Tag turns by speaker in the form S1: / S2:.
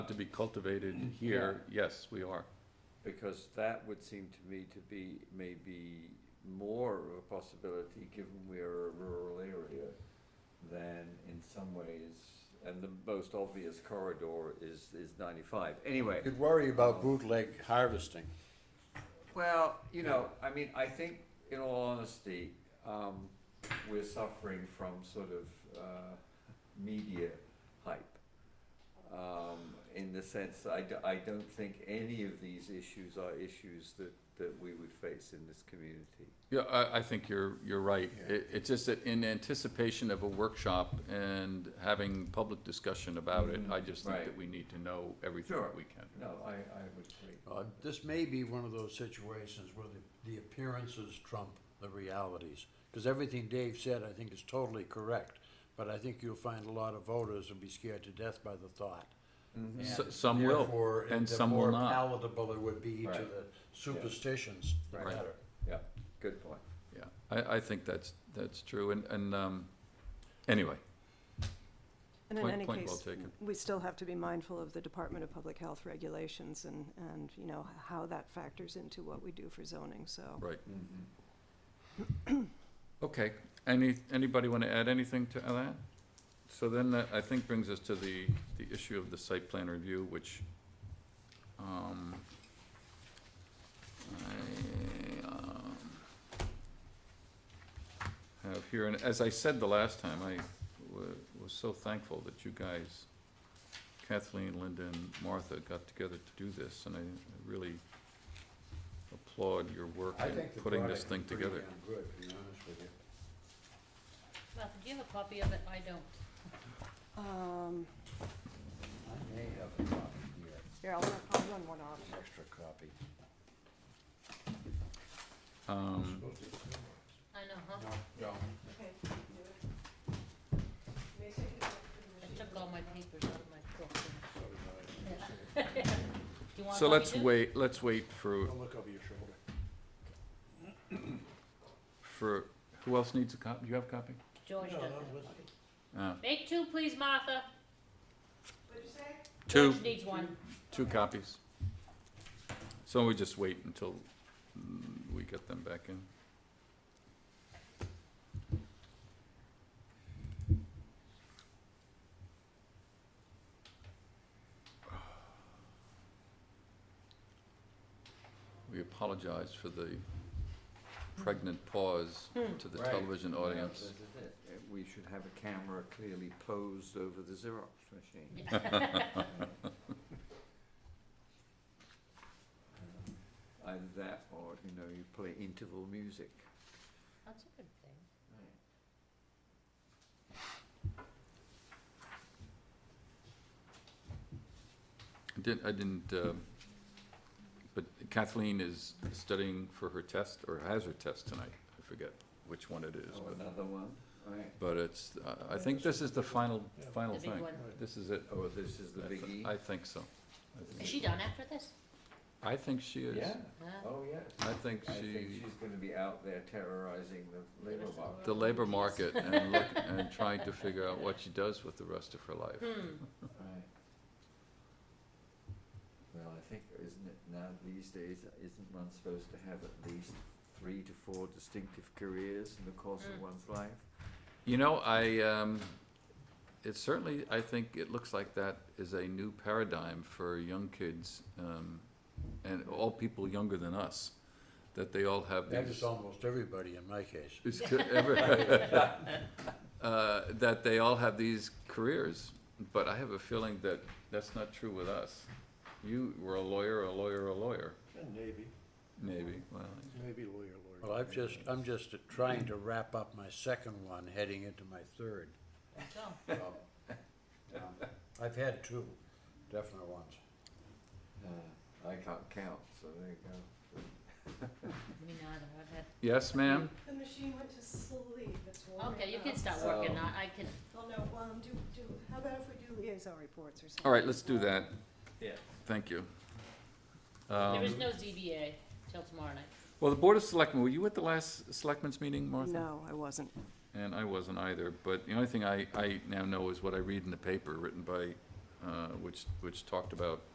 S1: to be cultivated
S2: Mm,
S1: here, yes, we are.
S2: Because that would seem to me to be maybe more of a possibility, given we're a rural area, than in some ways, and the most obvious corridor is, is ninety-five. Anyway,
S3: You'd worry about bootleg harvesting.
S2: well, you know, I mean, I think, in all honesty, um, we're suffering from sort of, uh, media hype. um, in the sense that I, d- I don't think any of these issues are issues that, that we would face in this community.
S1: Yeah, I, I think you're, you're right. It, it's just that in anticipation of a workshop and having public discussion about it, I just think that
S2: Mm, Right.
S1: we need to know everything
S2: Sure.
S1: that we can.
S2: No, I, I would agree.
S3: Uh, This may be one of those situations where the- the appearances trump the realities. Because everything Dave said, I think, is totally correct. But I think you'll find a lot of voters will be scared to death by the thought.
S2: Mm-hmm.
S3: And
S1: S- some will,
S3: therefore,
S1: and
S3: the
S1: some will
S3: more
S1: not.
S3: palatable it would be to
S2: Right.
S3: the superstitions, the
S2: Right.
S3: better.
S2: Yeah, good point.
S1: Yeah, I, I think that's, that's true, and, and, um, anyway,
S4: And in
S1: Point-
S4: any
S1: point well
S4: case,
S1: taken.
S4: we still have to be mindful of the Department of Public Health regulations and, and, you know, how that factors into what we do for zoning, so.
S1: right.
S2: Mm-hmm.
S1: Okay, any, anybody want to add anything to that? So then that, I think, brings us to the, the issue of the site plan review, which, um, I, um, have here, and as I said the last time, I wa- was so thankful that you guys, Kathleen, Linda, and Martha got together to do this, and I really applaud your work
S3: I
S1: in
S3: think the
S1: putting this
S3: product
S1: thing
S3: is pretty
S1: together.
S3: damn Good, to be honest with you.
S5: Martha, do you have a copy of it? I don't.
S4: Um,
S3: I may have a copy here,
S4: here, I'll, I'll run one off.
S3: an extra copy.
S1: Um,
S5: I know, huh?
S3: No.
S5: I took all my papers out of my book. Do you want
S1: So
S5: a copy
S1: let's
S5: too?
S1: wait, let's wait for,
S3: Don't look over your shoulder.
S1: for, who else needs a copy? Do you have a copy?
S5: George does.
S1: Uh,
S5: Make two, please, Martha.
S1: Two,
S5: George needs one.
S1: two copies. So we just wait until mm, we get them back in. We apologize for the pregnant pause to the
S2: Right.
S1: television audience.
S2: This is it. Uh, We should have a camera clearly posed over the Xerox machine. Either that or, you know, you play interval music.
S5: That's a good thing.
S1: I didn't, I didn't, uh, but Kathleen is studying for her test, or has her test tonight. I forget which one it is,
S2: Oh,
S1: but,
S2: another one, right.
S1: but it's, uh, I- I think this is the final, final
S5: The big
S1: thing.
S5: one.
S1: This is it.
S2: Oh, this is the
S1: I th-
S2: biggie?
S1: I think so. I think-
S5: Is she done after this?
S1: I think she is.
S2: Yeah,
S5: Huh?
S2: oh, yes.
S1: I think
S2: I think
S1: she,
S2: she's gonna be out there terrorizing the labor
S5: Give us a
S2: market.
S1: the labor market and look, and trying to figure out what she does with the rest of her life.
S5: Hmm,
S2: Right. Well, I think, isn't it now these days, isn't one supposed to have at least three to four distinctive careers in the course of
S5: Mm.
S2: one's life?
S1: You know, I, um, it certainly, I think it looks like that is a new paradigm for young kids, um, and all people younger than us, that they all have
S3: That
S1: these.
S3: is almost everybody in my case.
S1: It's co- ever- Uh, that they all have these careers, but I have a feeling that that's not true with us. You were a lawyer, a lawyer, a lawyer,
S6: Navy,
S1: maybe, well,
S6: Navy lawyer, lawyer.
S3: Well, I've just, I'm just trying to wrap up my second one, heading into my third.
S5: there you go.
S3: so, um, I've had two definite ones.
S2: Uh, I can't count, so there you go.
S5: Me neither. I've had-
S1: yes, ma'am?
S4: The machine went to sleep, it's
S5: Okay, you can start working.
S2: So-
S5: I, I can,
S4: Well, no, um, do, do, how about if we do liaison reports or something?
S1: All right, let's do that,
S2: Yeah.
S1: thank you.
S5: there is
S1: Um,
S5: no ZBA till tomorrow night.
S1: Well, the Board of Selectmen, were you at the last Selectmen's meeting, Martha?
S4: No, I wasn't.
S1: And I wasn't either, but the only thing I, I now know is what I read in the paper written by uh, which, which talked about